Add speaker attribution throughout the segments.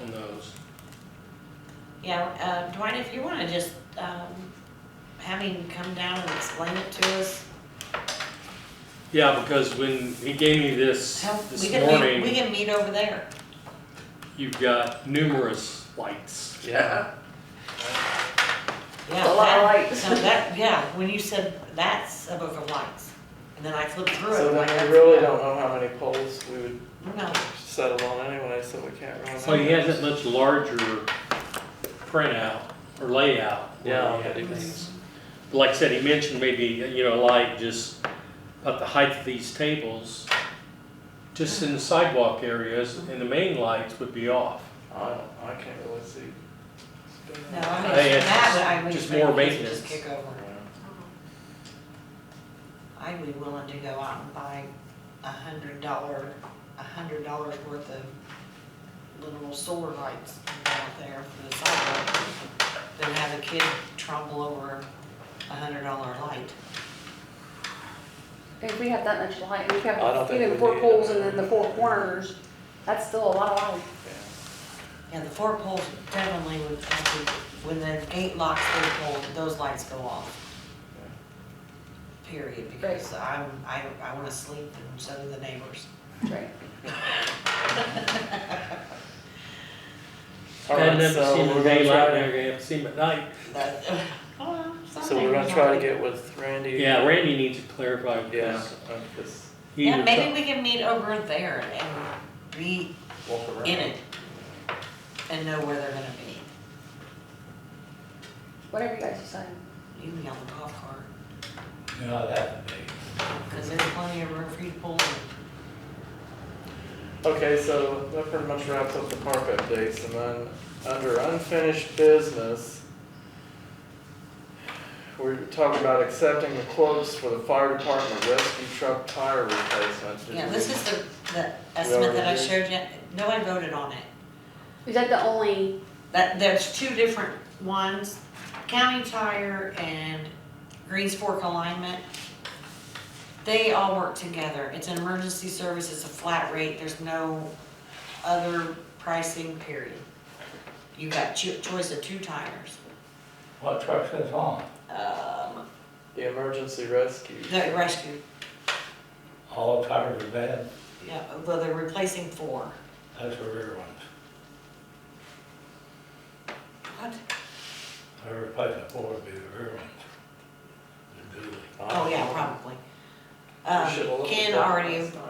Speaker 1: on those.
Speaker 2: Yeah, uh, Dwight, if you wanna just, um, have him come down and explain it to us.
Speaker 1: Yeah, because when he gave me this
Speaker 2: How- we
Speaker 1: this
Speaker 2: can meet- We
Speaker 1: morning,
Speaker 2: can meet over there.
Speaker 1: you've got numerous lights.
Speaker 3: Yeah.
Speaker 2: Yeah,
Speaker 3: A lot of
Speaker 2: that-
Speaker 3: lights.
Speaker 2: So that, yeah, when you said that's some of the lights, and then I flipped through it.
Speaker 4: So
Speaker 2: like,
Speaker 4: then
Speaker 2: that's-
Speaker 4: we really don't know how many poles we would
Speaker 2: No,
Speaker 4: settle on anyway, so we can't really.
Speaker 1: So he
Speaker 4: know.
Speaker 1: has that much larger printout or layout. where
Speaker 4: Yeah,
Speaker 1: he
Speaker 4: that
Speaker 1: had
Speaker 4: he
Speaker 1: things. Like I said, he mentioned maybe, you know, like just about the height of these tables, just in the sidewalk areas, and the main lights would be off.
Speaker 4: I don't, I can't really see.
Speaker 2: no, I mean,
Speaker 1: Hey, it's
Speaker 2: that, I would.
Speaker 1: just more
Speaker 2: Just
Speaker 1: maintenance.
Speaker 2: kick over. I'd be willing to go out and buy a hundred dollar, a hundred dollars worth of little solar lights out there for the sidewalk. Then have a kid trumble over a hundred dollar light.
Speaker 5: If we have that much light, we
Speaker 4: I don't
Speaker 5: have
Speaker 4: think
Speaker 5: even
Speaker 4: we
Speaker 5: four
Speaker 4: need
Speaker 5: poles
Speaker 4: it.
Speaker 5: and then the four corners, that's still a lot of light.
Speaker 2: Yeah, the four poles definitely would, have to- when the gate locks their pole, those lights go off. Period, because I'm, I, I wanna sleep and so do the neighbors.
Speaker 5: Right.
Speaker 4: All
Speaker 1: I've
Speaker 4: right,
Speaker 1: never
Speaker 4: so
Speaker 1: seen
Speaker 4: we're
Speaker 1: them
Speaker 4: gonna
Speaker 1: daylight,
Speaker 4: try-
Speaker 1: and I haven't seen them at night.
Speaker 2: That-
Speaker 4: So we're gonna try to get with Randy.
Speaker 1: Yeah, Randy needs to clarify
Speaker 4: Yeah,
Speaker 1: because
Speaker 4: uh, just
Speaker 1: he
Speaker 2: Yeah,
Speaker 1: was
Speaker 2: maybe we can meet over there and be
Speaker 4: walk around.
Speaker 2: in it and know where they're gonna
Speaker 5: Whatever you guys decide.
Speaker 2: be. You can be on the golf cart,
Speaker 6: Not that big.
Speaker 2: cause there's plenty of room for you to pull in.
Speaker 4: Okay, so that pretty much wraps up the park updates, and then under unfinished business, we talked about accepting the quotes for the fire department rescue truck tire replacement. Did
Speaker 2: Yeah,
Speaker 4: we-
Speaker 2: this is the, the estimate that I showed you, no one voted on it.
Speaker 5: Is that the only,
Speaker 2: That, there's two different ones, county tire and Greens Fork Alignment. They all work together. It's an emergency service, it's a flat rate, there's no other pricing period. You got cho- choice of two tires.
Speaker 6: What truck's this on?
Speaker 2: Um,
Speaker 4: The emergency rescue.
Speaker 2: the rescue,
Speaker 6: All tires are bad,
Speaker 2: yeah, well, they're replacing four.
Speaker 6: that's the rear ones.
Speaker 2: What?
Speaker 6: They're replacing four would be the rear ones. The dually.
Speaker 2: Oh, yeah, probably.
Speaker 4: Uh, We should've
Speaker 2: Um,
Speaker 4: looked at
Speaker 2: Ken
Speaker 4: that
Speaker 2: already
Speaker 4: last time.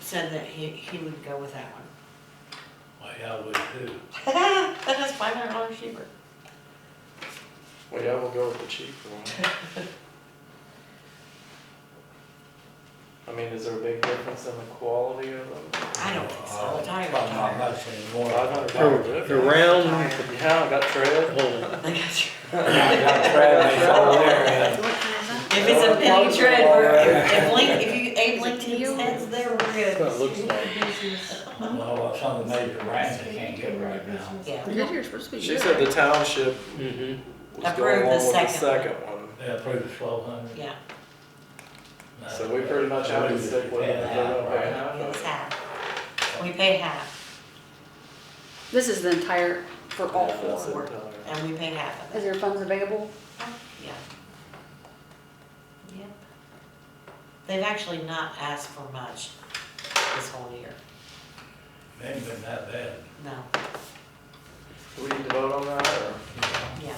Speaker 2: said that he, he would go with that one.
Speaker 6: Well, yeah, I would too.
Speaker 2: That is five hundred dollars cheaper.
Speaker 4: Well, yeah, we'll go with the cheaper one. I mean, is there a big difference in the quality of them?
Speaker 2: I don't think so,
Speaker 6: Uh,
Speaker 2: the tires
Speaker 6: probably Not
Speaker 2: are
Speaker 6: much anymore.
Speaker 4: Five hundred
Speaker 1: They're-
Speaker 4: dollars.
Speaker 1: they're round.
Speaker 2: tired.
Speaker 4: You haven't got trail?
Speaker 1: Oh,
Speaker 2: They got you.
Speaker 6: I got Bradley's over there, and
Speaker 2: If it's a penny tread, we're, if- if Link, if you, Abe
Speaker 5: you?
Speaker 2: Lincoln heads there, we're
Speaker 1: That's what it
Speaker 2: good.
Speaker 1: looks like.
Speaker 6: Well, some of the major brands they can't get right now.
Speaker 2: Yeah,
Speaker 4: She said the township
Speaker 1: Mm-hmm.
Speaker 4: was
Speaker 2: Approved
Speaker 4: going
Speaker 2: the
Speaker 4: along with the
Speaker 2: second
Speaker 4: second one.
Speaker 6: They approved twelve hundred.
Speaker 2: yeah,
Speaker 4: So we pretty much have to stick with it.
Speaker 2: it's half. We pay half,
Speaker 5: this is the entire, for all
Speaker 4: Yeah, that's
Speaker 5: four?
Speaker 4: it, tell her.
Speaker 2: and we pay half of
Speaker 5: Is
Speaker 2: it,
Speaker 5: there funds available?
Speaker 2: yeah. Yep. They've actually not asked for much this whole year,
Speaker 6: They ain't been that bad.
Speaker 2: no,
Speaker 4: Do we need to vote on that, or?
Speaker 2: yeah.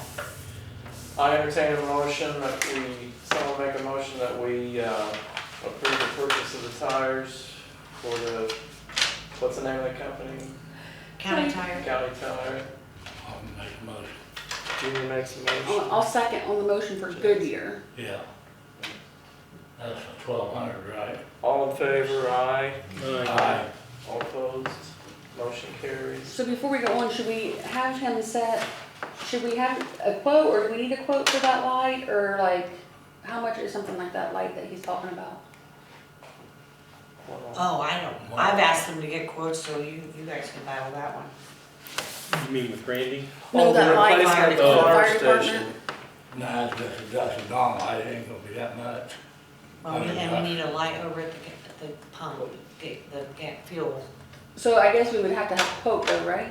Speaker 4: I entertain a motion that we, someone make a motion that we uh, approve the purchase of the tires for the, what's the name of the company?
Speaker 2: County tire,
Speaker 4: County Tire.
Speaker 6: I'll make a motion.
Speaker 4: Junior makes a
Speaker 5: I'll
Speaker 2: Oh,
Speaker 4: motion.
Speaker 5: I'll second on the motion for Goodyear.
Speaker 6: Yeah. That's twelve hundred, right?
Speaker 4: All in favor, aye.
Speaker 1: Uh,
Speaker 6: Uh,
Speaker 1: Aye.
Speaker 4: All opposed, motion carries.
Speaker 5: So before we go on, should we have him set, should we have a quote, or do we need a quote for that light, or like, how much is something like that light that he's talking about?
Speaker 4: Hold on.
Speaker 2: oh, I don't, I've asked them to get quotes, so you, you guys can buy that one.
Speaker 1: You mean with Randy?
Speaker 5: No,
Speaker 4: Oh, the
Speaker 5: that light.
Speaker 4: replacement at the
Speaker 1: Oh.
Speaker 5: Fire
Speaker 4: fire station.
Speaker 6: Nah, it's just a dust and dawn light, it ain't gonna be that much.
Speaker 2: Well, we- and we need a light over at the, ga- at the pump, the, the ga- fuel.
Speaker 5: So I guess we would have to have a quote though, right?